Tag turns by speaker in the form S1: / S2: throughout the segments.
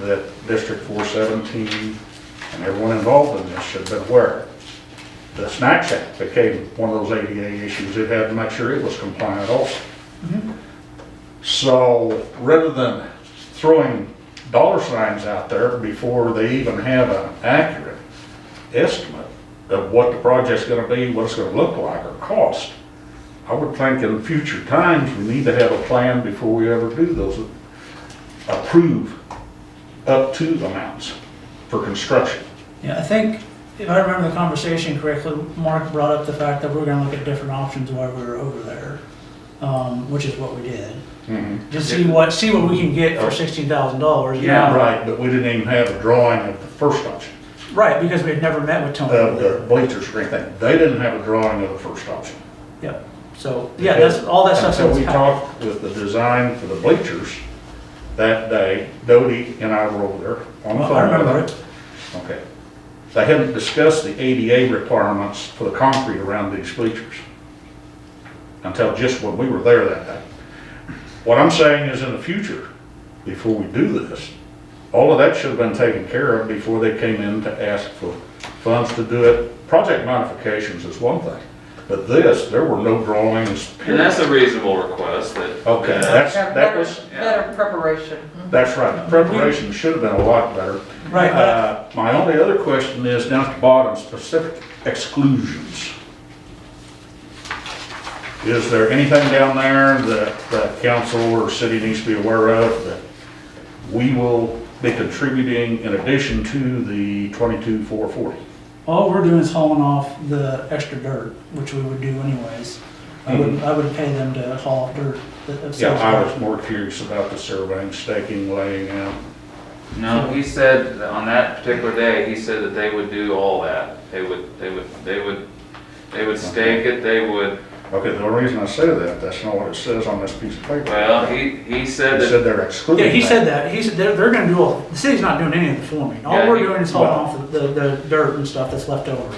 S1: that District 417 and everyone involved in this should have been aware. The snack shack became one of those ADA issues, it had to make sure it was compliant also. So rather than throwing dollar signs out there before they even have an accurate estimate of what the project's gonna be, what it's gonna look like or cost, I would think in future times, we need to have a plan before we ever do those, approve up to the amounts for construction.
S2: Yeah, I think, if I remember the conversation correctly, Mark brought up the fact that we're gonna look at different options while we were over there, um, which is what we did. Just see what, see what we can get for sixteen thousand dollars.
S1: Mm-hmm. Yeah, right, but we didn't even have a drawing of the first option,
S2: Right, because we had never met with
S1: of
S2: Tony.
S1: the bleachers or anything. They didn't have a drawing of the first option.
S2: Yep, so, yeah, that's, all that stuff's.
S1: Until we talked with the design for the bleachers that day, Doty and I were over there on the phone.
S2: I remember it.
S1: Okay. They hadn't discussed the ADA requirements for the concrete around these bleachers until just when we were there that day. What I'm saying is in the future, before we do this, all of that should have been taken care of before they came in to ask for funds to do it. Project modifications is one thing, but this, there were no drawings.
S3: And that's a reasonable request that.
S1: Okay,
S3: that-
S1: that's,
S4: Yeah,
S1: that was,
S4: Better better preparation.
S1: that's right. Preparation should have been a lot better.
S2: Right, but
S1: Uh, My only other question is down at the bottom, specific exclusions. Is there anything down there that the council or city needs to be aware of that we will be contributing in addition to the 22,440?
S2: All we're doing is hauling off the extra dirt, which we would do anyways. I would, I would pay them to haul off dirt. that- that's-
S1: Mm-hmm. Yeah, I was more curious about the surveying, staking, laying out.
S3: No, he said, that on that particular day, he said that they would do all that. They would, they would, they would, they would stake it, they would,
S1: Okay, the reason I say that, that's not what it says on this piece of paper.
S3: well, he, he said
S1: It
S3: that,
S1: said they're excluding
S2: Yeah, he
S1: that.
S2: said that, he said, they're, they're gonna do all, the city's not doing any of the forming. All
S3: Yeah,
S2: we're
S3: he-
S2: doing is hauling
S1: well-
S2: off the, the dirt and stuff that's left over.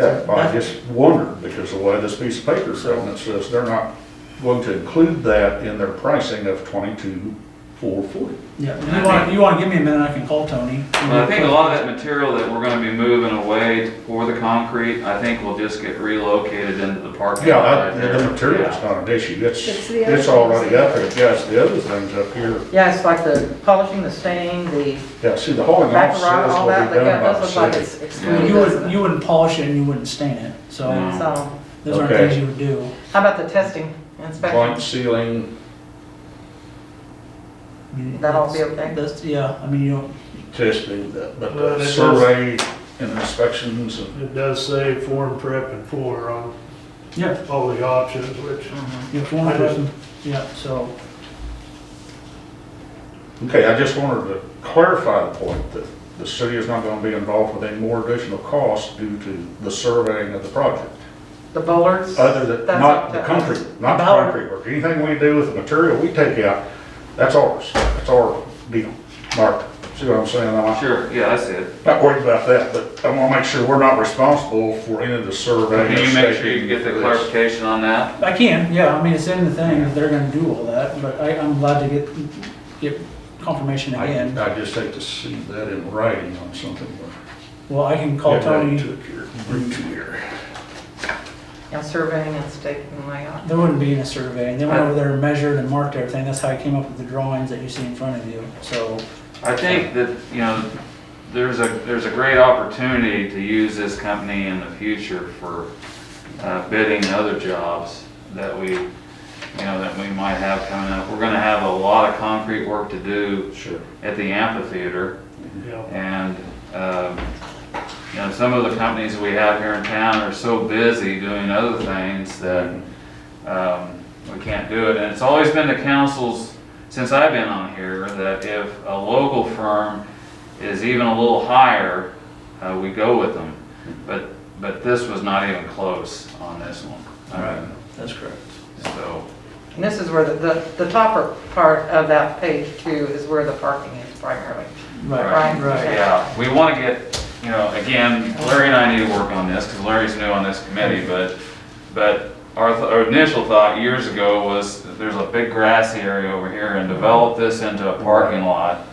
S1: Okay, well, I just wondered, because the way this piece of paper is written, it says they're not going to include that in their pricing of twenty-two, four forty.
S2: Yeah, you wanna, you wanna give me a minute, I can call Tony.
S3: Well, I think a lot of that material that we're gonna be moving away for the concrete, I think will just get relocated into the parking
S1: Yeah,
S3: lot right
S1: I-
S3: there.
S1: the material's
S3: Yeah.
S1: not an issue, it's,
S5: It's the other
S1: it's already
S5: things.
S1: up there, yes, the other things up here,
S4: Yeah, it's like the polishing, the staining, the
S1: yeah, see, the hauling off
S4: back
S1: says
S4: rock, all
S1: will
S4: that,
S1: be done
S4: like, yeah,
S1: by
S4: it
S1: the
S4: does look like
S1: city.
S4: it's
S3: Yeah.
S4: excluded,
S2: You
S4: doesn't
S2: wouldn't,
S4: it?
S2: you wouldn't polish it and you wouldn't stain it, so
S3: No.
S4: So,
S2: those aren't
S1: Okay.
S2: things you would do.
S4: how about the testing,
S1: Joint
S4: inspection?
S1: ceiling,
S2: I mean,
S4: That'll be okay?
S2: That's, yeah, I mean, you don't,
S1: testing, the- but
S6: Well, it
S1: the
S6: does-
S1: survey and inspections and,
S6: It does say form prep and pour on
S2: yeah,
S6: all the options, which
S2: you're a foreign person, yeah, so.
S1: okay, I just wanted to clarify the point that the city is not gonna be involved with any more additional costs due to the surveying of the project.
S4: The bollards?
S1: Other than,
S4: That's
S1: not
S4: up
S1: the
S4: to
S1: concrete,
S4: us.
S1: not the
S2: Ballard.
S1: concrete work, anything we do with the material we take out, that's ours, that's our deal. Mark, see what I'm saying? I'm
S3: Sure, yeah, that's it.
S1: not worried about that, but I wanna make sure we're not responsible for any of the survey.
S3: Can you make sure you get the
S1: this.
S3: clarification on that?
S2: I can, yeah, I mean, it's in the thing, that they're gonna do all that, but I, I'm glad to get, get confirmation again.
S1: I, I just hate to see that in writing on something. we're-
S2: Well, I can call
S1: Yeah,
S2: Tony,
S1: Took your, bring to your.
S4: Yeah, surveying and staking and layout.
S2: there wouldn't be in a survey, and they went over there and measured and marked everything, that's how I came up with the drawings that you see in front of you, so.
S3: I think that, you know, there's a, there's a great opportunity to use this company in the future for uh, bidding other jobs that we, you know, that we might have coming up. We're gonna have a lot of concrete work to do
S1: Sure.
S3: at the amphitheater
S6: you know,
S3: and, um, you know, some of the companies we have here in town are so busy doing other things that, um, we can't do it. And it's always been the council's, since I've been on here, that if a local firm is even a little higher, uh, we go with them. But, but this was not even close on this one. I mean,
S2: That's correct.
S3: So,
S4: And this is where the, the, the topper part of that page too is where the parking is primarily.
S2: Right,
S4: Right.
S2: right.
S3: yeah, we want to get, you know, again, Larry and I need to work on this, because Larry's new on this committee, but, but our, th- our initial thought years ago was, that there's a big grassy area over here, and develop this into a parking lot